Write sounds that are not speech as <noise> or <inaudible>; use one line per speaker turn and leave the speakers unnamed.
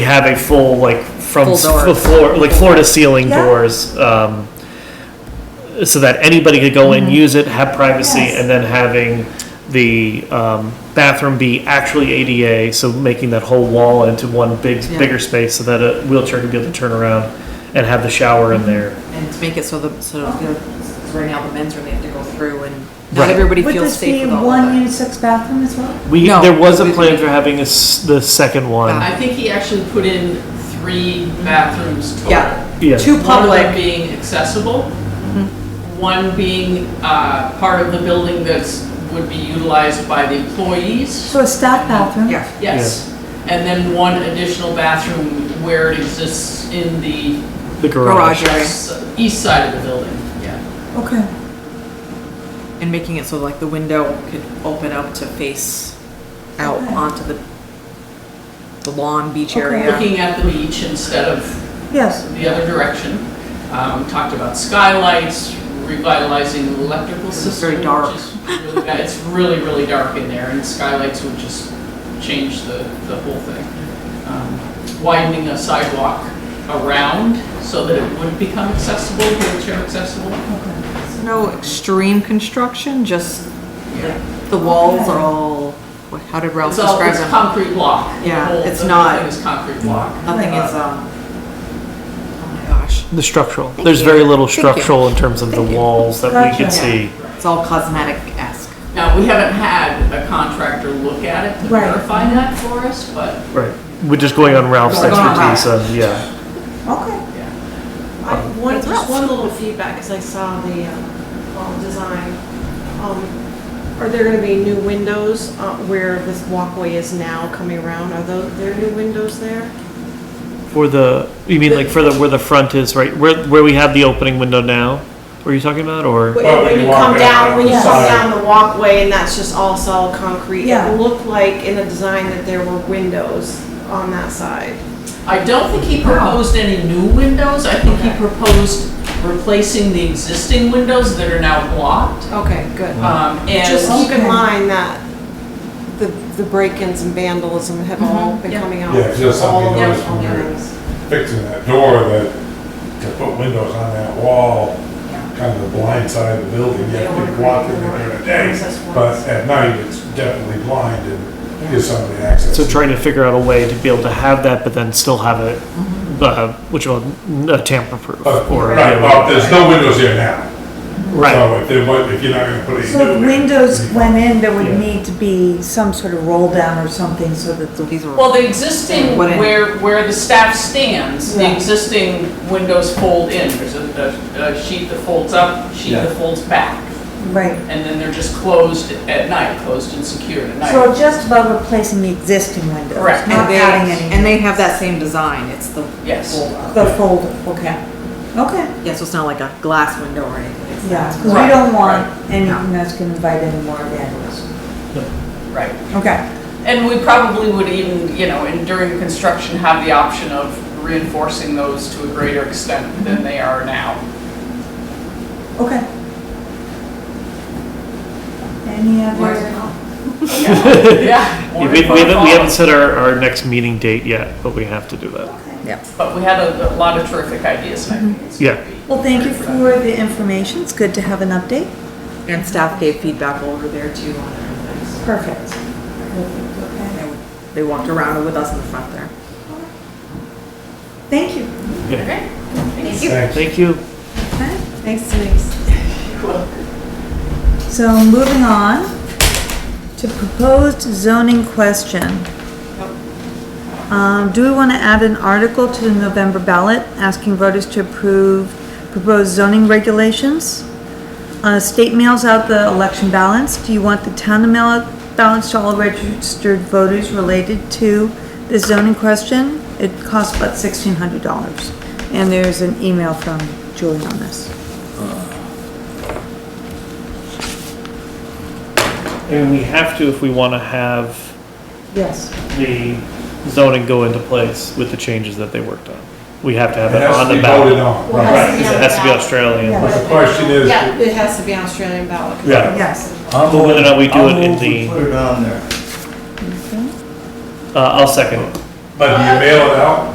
have a full, like, from
Full
s-
door.
the floor, like floor to ceiling
Yeah.
doors, um, so that anybody could go in,
Mm-hmm.
use it, have privacy,
Yes.
and then having the, um, bathroom be actually ADA, so making that whole wall into one big,
Yeah.
bigger space so that a wheelchair could be able to turn around and have the shower
Mm-hmm.
in there.
And to make it so the, so, you know, 'cause right now the men's room, they have to go through and
Right.
not everybody
Would
feels
this
safe
be
with all
one
of that.
unisex bathroom as well?
We,
No,
there was a
we- Uh,
plan for having a s the second one,
I think he actually put in three bathrooms total.
Yeah,
yes.
two
One of them
public, Mm-hmm.
being accessible, one being uh, part of the building that's, would be utilized by the employees.
So a staff bathroom?
yeah.
Yes. And then one additional bathroom where it exists in the
The garage.
Garage. Right.
s- east side of the building, yeah.
Okay.
And making it so like the window could open up to face out
Okay.
onto the the lawn beach
Okay.
area.
Looking at the beach instead of
Yes.
the other direction. Um, talked about skylights, revitalizing the electrical
It's
system.
very dark.
which is really bad. It's really, really dark in there, and skylights would just change the, the whole thing. Um, Widening a sidewalk around so that it would become accessible, wheelchair accessible.
No extreme construction, just
Yeah.
the walls are all, what- how did Ralph
It's all,
describe
it's
them?
concrete block. The
Yeah,
whole-
it's
the whole
not-
thing is concrete block.
Nothing is, um, oh my gosh,
The structural.
Thank
There's
you.
very little
Thank you.
structural in terms of the
Thank you.
walls that we
Gotcha.
could see.
it's all cosmetic-esque.
Now, we haven't had a contractor look at it to
Right.
verify that for us, but
Right. We're just going on Ralph's
We're going on
expertise, and yeah.
Okay.
I, one,
That's rough.
just one little feedback, because I saw the, um, wall design. Um, Are there gonna be new windows, uh, where this walkway is now coming around? Are tho- there new windows there?
For the, you mean like for the, where the front is, right? Where, where we have the opening window now? Were you talking about, or?
When when you come
walk
down,
out
when you
on the
come
side.
down the walkway and that's just all solid concrete,
Yeah.
it looked like in the design that there were windows on that side.
I don't think he proposed any new windows, I think he proposed replacing the existing windows that are now blocked.
Okay, good.
Um,
Just
and,
keep in
Okay.
mind that the, the break-ins and vandalism have all been coming out.
Yeah, just
all
something
over
noticed when we were
buildings.
fixing that door that, to put windows on that wall, kind of the blind side of the building, you have people walk in there during the day, but at night, it's definitely blind and gives somebody access.
So trying to figure out a way to be able to have that, but then still have it, uh, which will, tamper proof
But,
or.
right, well, there's no windows here now.
Right.
So if they, want- if you're not gonna put
So
any
if
new.
windows went in, there would
Yeah.
need to be some sort of roll down or something so that the.
These are,
well, the existing,
Wouldn't-
where, where the staff stands, the
Yeah.
existing windows fold in. There's a, a- a sheet that folds up, sheet that folds back,
Right.
and then they're just closed at night, closed and secured at night.
So just about replacing the existing windows,
Correct.
and
not
they,
adding any.
and they have that same design, it's the um,
Yes.
roll-up.
The folder, okay. Okay.
Yeah, so it's not like a glass window or anything. It's-
Yeah, because we
Right,
don't want
right.
anything that's going to invite any more vandalism.
Right.
Okay.
And we probably would even, you know, and during construction, have the option of reinforcing those to a greater extent than they are now.
Okay. Any other?
Yeah.
<laughs> We, we haven't, we haven't set our, our next meeting date yet, but we have to do that.
Okay.
But we had a a lot of terrific ideas, and I think it's
Yeah.
gonna be
Well, thank you
great that.
for the information. It's good to have an update.
And staff gave feedback over there too on everything.
Perfect. Perfect, Okay.
They walked around with us in the front there.
Thank you.
Thanks.
Thank you.
Okay.
Thanks,
<laughs>
Denise.
So moving on to proposed zoning question.
Oh.
Um, do we want to add an article to the November ballot asking voters to approve proposed zoning regulations? Uh, state mails out the election balance. Do you want the town to mail out balance to all registered voters related to the zoning question? It costs about sixteen hundred dollars. And there's an email from Julie on this.
And we have to if we want to have
Yes.
the zoning go into place with the changes that they worked on. We have to
It
have it
has
on
to
the
be voted
ballot.
on,
Well,
right.
Right, 'cause it has to be Australian.
Yeah.
But the question is,
Yeah, it has to be on Australian ballot. 'cause
Yeah.
Yes.
I'll
Whether or not uh, we do
I'll
it in
move we
the,
put it on there.
uh, I'll second it.
But do you mail it out?